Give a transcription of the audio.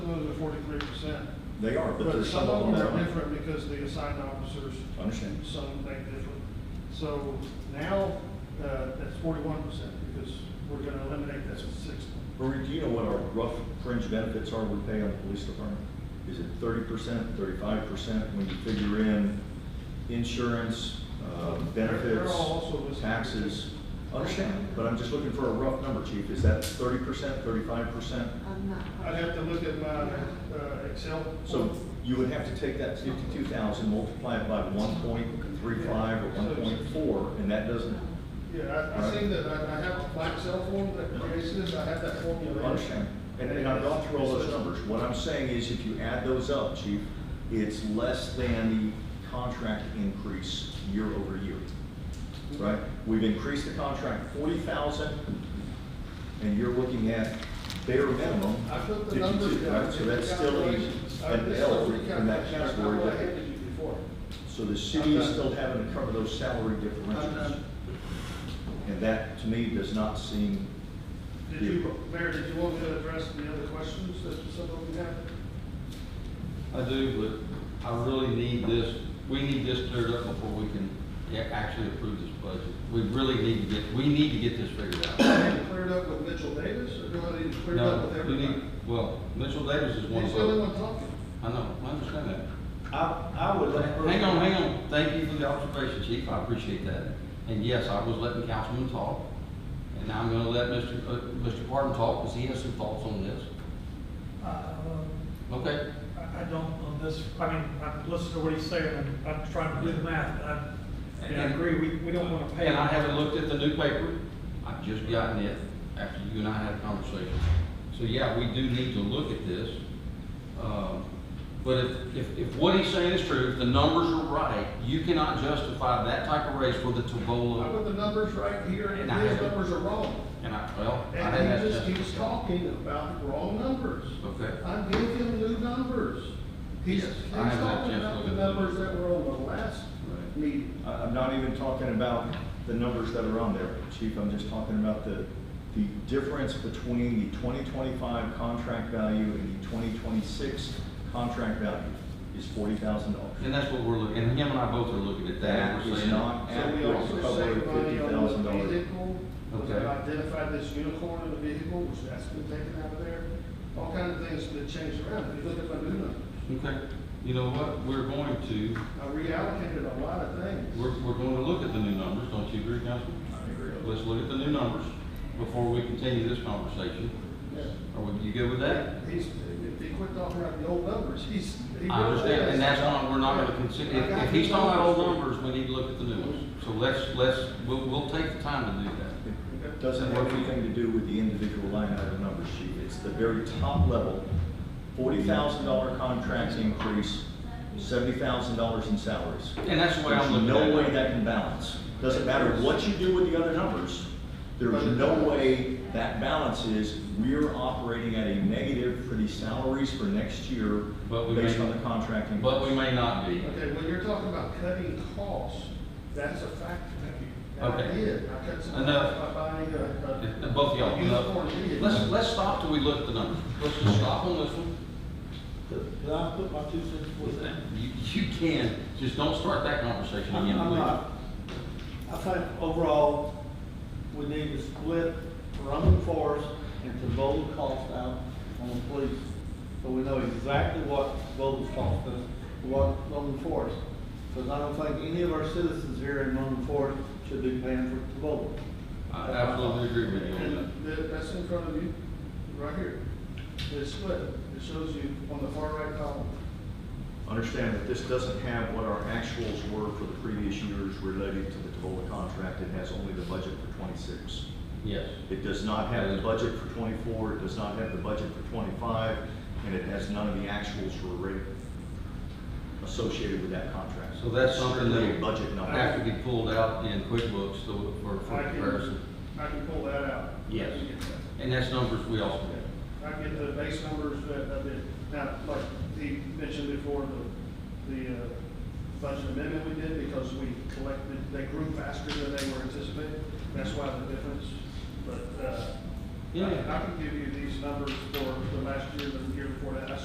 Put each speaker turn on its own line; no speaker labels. They are, but
But
there's
some of them are
aren't.
different because the assigned officers,
I Understand.
some think different. So now, uh, that's forty-one percent because we're gonna eliminate that six.
Marie, do you know what our rough fringe benefits are we pay on the police department? Is it thirty percent, thirty-five percent, when you figure in insurance, uh,
They're
benefits,
all also listed.
taxes? Understand, but I'm just looking for a rough number, chief, is that thirty percent, thirty-five percent?
I'm not.
I'd have to look at my uh, Excel.
So you would have to take that fifty-two thousand, multiply it by one point three five or one point four, and that doesn't,
Yeah, I, I seen that, I, I have a black cell phone that creates this, I have that formula.
understand? And, and I've gone through all those numbers, what I'm saying is if you add those up, chief, it's less than the contract increase year over year, right? We've increased the contract forty thousand, and you're looking at bare minimum
I put the numbers
fifty-two,
down.
right? So that's still a,
Calculations. I
an
just
L
told you
in that
calculations. I
category,
know I
but-
handed you before.
So the city is still having to cover those salary
I'm
differentials.
done.
And that, to me, does not seem,
Did you, Mayor, did you want me to address any other questions that some of you have?
I do, but I really need this, we need this cleared up before we can a- actually approve this budget. We really need to get, we need to get this figured out.
Do I need to clear it up with Mitchell Davis, or do I need to clear it up
No,
with
we
everybody?
need, well, Mitchell Davis is one
He's
of
the only
them.
one talking.
I know, I understand that.
I, I would let her.
Hang on, hang on, thank you for the observation, chief, I appreciate that. And yes, I was letting Councilman talk, and now I'm gonna let Mr. uh, Mr. Parton talk, because he has some thoughts on this.
I,
Okay,
Uh, I don't on this, I mean, I'm listening to what he's saying, and I'm trying to do the math, but I, and I agree, we, we don't wanna pay.
and I haven't looked at the new paper, I've just gotten it after you and I had a conversation. So yeah, we do need to look at this. Um, But if, if, if what he's saying is true, if the numbers are right, you cannot justify that type of raise for the
I
Tobola.
put the numbers right here, and
And I
his
have-
numbers are wrong.
And I, well, I didn't
And
have
he just
to.
keeps talking about wrong numbers.
Okay.
I gave him new numbers. He's,
Yes,
he's
I have that
talking
chance
about
to
the
look at the
numbers that were on the last
Right.
meeting.
I, I'm not even talking about the numbers that are on there, chief, I'm just talking about the, the difference between the twenty twenty-five contract value and the twenty twenty-six contract value is forty thousand dollars.
And that's what we're looking, and him and I both are looking at
That
that. We're
is
saying-
not-
So we also saved money on the
$50,000.
vehicle, because
Okay.
I identified this unicorn in the vehicle, which that's been taken out of there. All kinds of things that changed around, if you look at my new numbers.
Okay, you know what, we're going to,
I reallocated a lot of things.
we're, we're going to look at the new numbers, don't you agree, Councilman?
I agree.
Let's look at the new numbers before we continue this conversation.
Yeah.
Are we- you good with that?
He's, if he quit talking about the old numbers, he's. he
I understand,
really is.
and that's not, we're not gonna consider,
I
if,
got
if he's
his
talking about old numbers, we need to look at the new ones. So let's, let's, we'll, we'll take the time to do that.
It Doesn't have anything to do with the individual line item numbers, chief, it's the very top level, forty thousand dollar contract increase, seventy thousand dollars in salaries.
And that's the way
There's
I'm looking at it.
no way that can balance. Doesn't matter what you do with the other numbers, there's no way that balance is, we're operating at a negative for the salaries for next year
But we
based
may-
on the contract increase.
But we may not be.
Okay, when you're talking about cutting costs, that's a factor. And I
Okay.
did, I cut some
Enough.
costs by buying a.
And Both of y'all,
Uniform
no.
vehicle.
let's, let's stop till we look at the numbers. Let's just stop on this one.
Could could I put my two cents worth in?
You, you can, just don't start that conversation
I'm
again,
I'm
please.
not. I think overall, we need to split Roman Forest and Tavola cost out on the police. So we know exactly what Tavola's cost us, what Roman Forest. Because I don't think any of our citizens here in Roman Forest should be paying for Tavola.
I absolutely agree with you on that.
And that- that's in front of you, right here. It's split, it shows you on the far right column.
Understand that this doesn't have what our actuals were for the previous years related to the Tavola contract, it has only the budget for twenty-six.
Yes.
It does not have the budget for twenty-four, it does not have the budget for twenty-five, and it has none of the actuals for rate associated with that contract.
So that's something that-
Strictly a Budget
Now,
number.
Have to be pulled out in QuickBooks so- for, for
I can-
comparison.
I can pull that out.
Yes. And that's numbers we also have.
I get the base numbers that I've been, now, like he mentioned before, the, the uh, budget amendment we did, because we collected, they grew faster than they were anticipated, that's why the difference, but, uh, I-
Yeah.
I can give you these numbers for the last year, the year before that, I